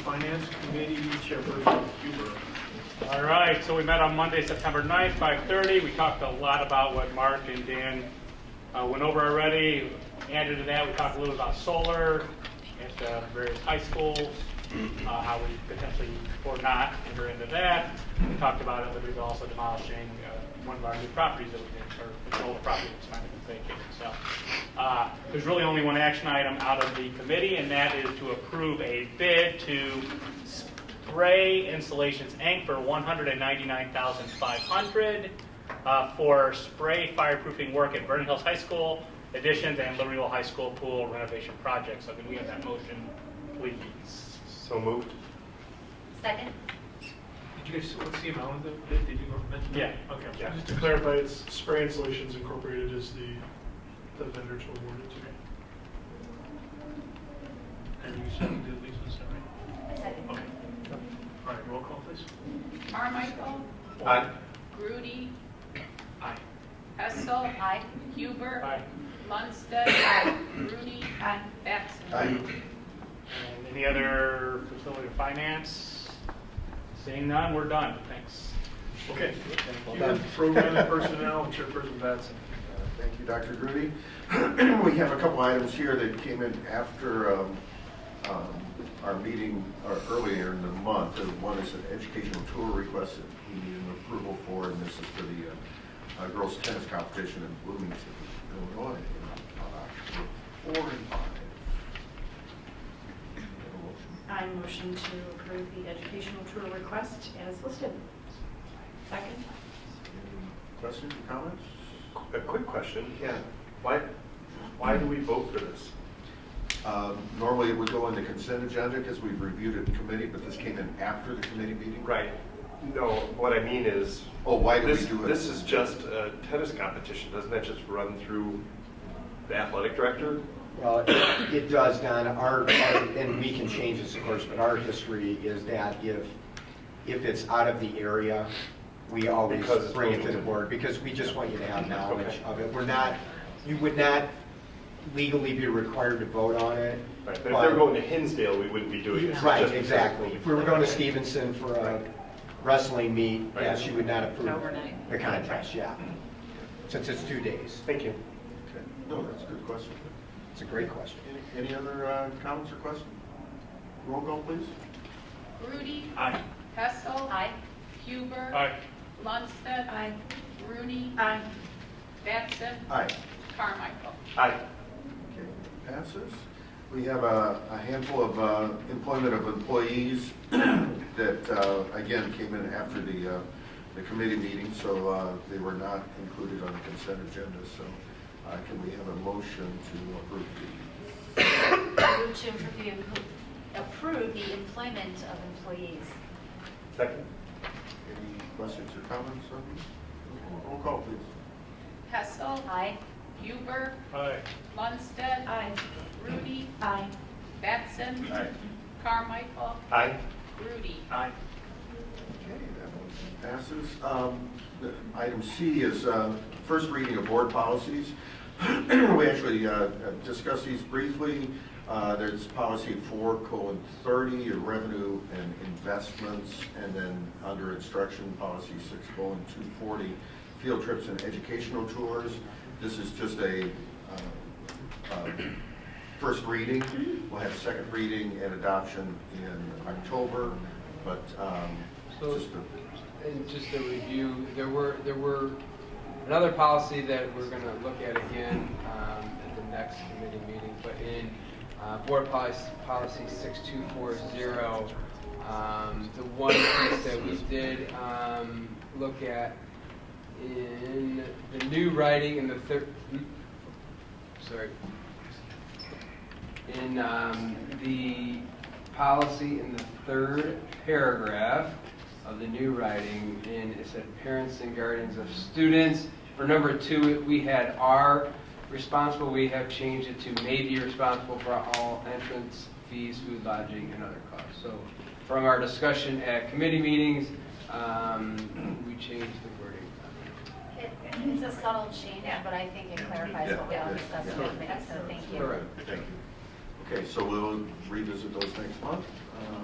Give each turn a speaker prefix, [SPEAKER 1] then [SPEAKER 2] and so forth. [SPEAKER 1] Finance Committee Chairperson Huber.
[SPEAKER 2] All right, so we met on Monday, September 9th, 5:30. We talked a lot about what Mark and Dan uh, went over already. Added to that, we talked a little about solar at the various high schools, uh, how we potentially, or not, enter into that. We talked about it, but we were also demolishing uh, one of our new properties that we did, or the old property that's kind of vacated. So uh, there's really only one action item out of the committee, and that is to approve a bid to Spray Installations Inc. for one hundred and ninety-nine thousand five hundred uh, for spray fireproofing work at Vernon Hills High School additions and Libertyville High School pool renovation projects. So can we have that motion, please?
[SPEAKER 3] So moved.
[SPEAKER 4] Second?
[SPEAKER 1] Did you guys, what's the amount of the bid? Did you mention? that?
[SPEAKER 2] Yeah.
[SPEAKER 1] Okay.
[SPEAKER 2] Yeah.
[SPEAKER 5] Just to clarify, it's Spray Installations Incorporated is the, the vendor to award it to.
[SPEAKER 1] And you seconded Lisa, is that right?
[SPEAKER 4] Second.
[SPEAKER 1] Okay. All right, roll call, please.
[SPEAKER 6] Carmichael.
[SPEAKER 3] Aye.
[SPEAKER 6] Grudy.
[SPEAKER 1] Aye.
[SPEAKER 6] Hessel.
[SPEAKER 4] Aye.
[SPEAKER 6] Huber.
[SPEAKER 2] Aye.
[SPEAKER 6] Munstead. Aye. Grudy.
[SPEAKER 4] Aye.
[SPEAKER 6] Batson.
[SPEAKER 2] And any other facility or finance? Seeing none, we're done. Thanks.
[SPEAKER 1] Okay.
[SPEAKER 3] Well
[SPEAKER 1] Huber,
[SPEAKER 3] done.
[SPEAKER 1] Program Personnel Chairperson Batson.
[SPEAKER 7] Uh, Thank you, Dr. Grudy. We have a couple items here that came in after um, um, our meeting uh, earlier in the month. Uh, One is an educational tour request that we need an approval for, and this is for the uh, uh, girls' tennis competition in Bloomington, Illinois, on October 4 and 5. Have a motion?
[SPEAKER 8] I motion to approve the educational tour request as listed. Second?
[SPEAKER 7] Any Questions or comments?
[SPEAKER 3] A quick question.
[SPEAKER 7] Yeah.
[SPEAKER 3] Why, why do we vote for this?
[SPEAKER 7] Um, Normally, it would go in the consent agenda because we've reviewed it in committee, but this came in after the committee meeting?
[SPEAKER 3] Right. No, what I mean is,
[SPEAKER 7] Oh, why do we
[SPEAKER 3] this,
[SPEAKER 7] do it?
[SPEAKER 3] this is just a tennis competition. Doesn't that just run through the athletic director?
[SPEAKER 9] Well, it it does, Don. Our, our- and we can change this, of course, but our history is that if, if it's out of the area, we always
[SPEAKER 3] Because it's
[SPEAKER 9] bring it to the
[SPEAKER 3] moving.
[SPEAKER 9] board, because we just want you to have knowledge of it. We're not, you would not legally be required to vote on it.
[SPEAKER 3] Right, but if they were going to Hinsdale, we wouldn't be doing this.
[SPEAKER 9] Right,
[SPEAKER 3] Just because-
[SPEAKER 9] exactly. If we were going to Stevenson for a wrestling meet,
[SPEAKER 3] Right.
[SPEAKER 9] yes, you would not approve
[SPEAKER 6] Overnight.
[SPEAKER 9] the contest, yeah. Since it's two days.
[SPEAKER 3] Thank you.
[SPEAKER 7] Okay. No, that's a good question.
[SPEAKER 9] It's a great question.
[SPEAKER 7] Any- Any other uh, comments or questions? Roll call, please.
[SPEAKER 6] Grudy.
[SPEAKER 1] Aye.
[SPEAKER 6] Hessel.
[SPEAKER 4] Aye.
[SPEAKER 6] Huber.
[SPEAKER 2] All right,
[SPEAKER 6] Munstead.
[SPEAKER 8] Aye.
[SPEAKER 6] Grudy.
[SPEAKER 8] Aye.
[SPEAKER 6] Batson.
[SPEAKER 7] Aye.
[SPEAKER 6] Carmichael.
[SPEAKER 3] Aye.
[SPEAKER 7] Okay, passes. We have a a handful of uh, employment of employees that, uh, again, came in after the, uh, the committee meeting, so uh, they were not included on the consent agenda, so uh, can we have a motion to approve the?
[SPEAKER 4] Move to approve the- approve the employment of employees.
[SPEAKER 3] Second?
[SPEAKER 7] Any questions or comments on these? Roll call, please.
[SPEAKER 6] Hessel.
[SPEAKER 4] Aye.
[SPEAKER 6] Huber.
[SPEAKER 2] all right.
[SPEAKER 6] Munstead.
[SPEAKER 8] Aye.
[SPEAKER 6] Grudy.
[SPEAKER 8] Aye.
[SPEAKER 6] Batson.
[SPEAKER 7] Aye.
[SPEAKER 6] Carmichael.
[SPEAKER 3] Aye.
[SPEAKER 6] Grudy.
[SPEAKER 1] Aye.
[SPEAKER 7] Okay, that motion passes. Um, the- Item C is uh, first reading of board policies. We actually uh, discussed these briefly. Uh, There's policy four colon thirty, your revenue and investments, and then under instruction, policy six colon two forty, field trips and educational tours. This is just a uh, uh, first reading. We'll have second reading and adoption in October, but um,
[SPEAKER 10] So-
[SPEAKER 7] just a-
[SPEAKER 10] And just a review, there were, there were another policy that we're going to look at again um, at the next committee meeting, but in uh, Board Policy, Policy 6240, um, the one piece that we did um, look at in the new writing in the third, sorry, in um, the policy in the third paragraph of the new writing, and it said parents and guardians of students. For number two, we had are responsible, we have changed it to may be responsible for all entrance fees, food, lodging, and other costs. So from our discussion at committee meetings, um, we changed the wording.
[SPEAKER 4] It- It's a subtle change, but I think it clarifies what we all discussed in the committee, so Oh, thank you.
[SPEAKER 10] Correct.
[SPEAKER 7] thank you. Okay, so we'll revisit those next month. Uh,